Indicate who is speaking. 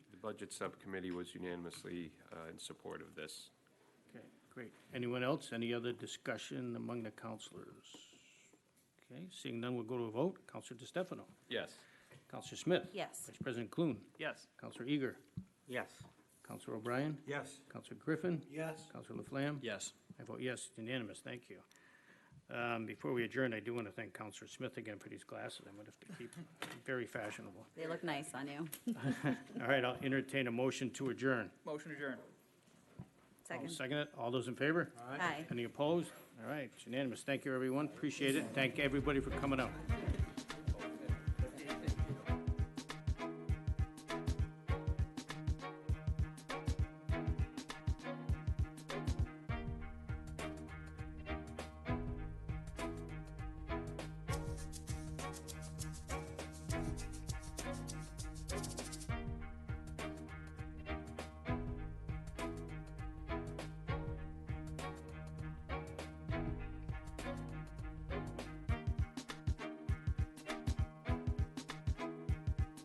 Speaker 1: Budget Subcommittee was unanimously uh, in support of this.
Speaker 2: Okay, great. Anyone else? Any other discussion among the counselors? Okay, seeing none, we'll go to a vote. Counselor DeStefano.
Speaker 1: Yes.
Speaker 2: Counselor Smith.
Speaker 3: Yes.
Speaker 2: Vice President Clune.
Speaker 4: Yes.
Speaker 2: Counselor Eager.
Speaker 4: Yes.
Speaker 2: Counselor O'Brien.
Speaker 4: Yes.
Speaker 2: Counselor Griffin.
Speaker 4: Yes.
Speaker 2: Counselor Laflamme.
Speaker 4: Yes.
Speaker 2: I vote yes, it's unanimous, thank you. Um, Before we adjourn, I do want to thank Counselor Smith again for these glasses. I'm going to have to keep very fashionable.
Speaker 3: They look nice on you.
Speaker 2: All right, I'll entertain a motion to adjourn.
Speaker 4: Motion adjourned.
Speaker 2: I'll
Speaker 3: Second.
Speaker 2: second it. All those in favor?
Speaker 3: Aye.
Speaker 2: Any opposed? All right, it's unanimous. Thank you, everyone. Appreciate it. Thank everybody for coming out.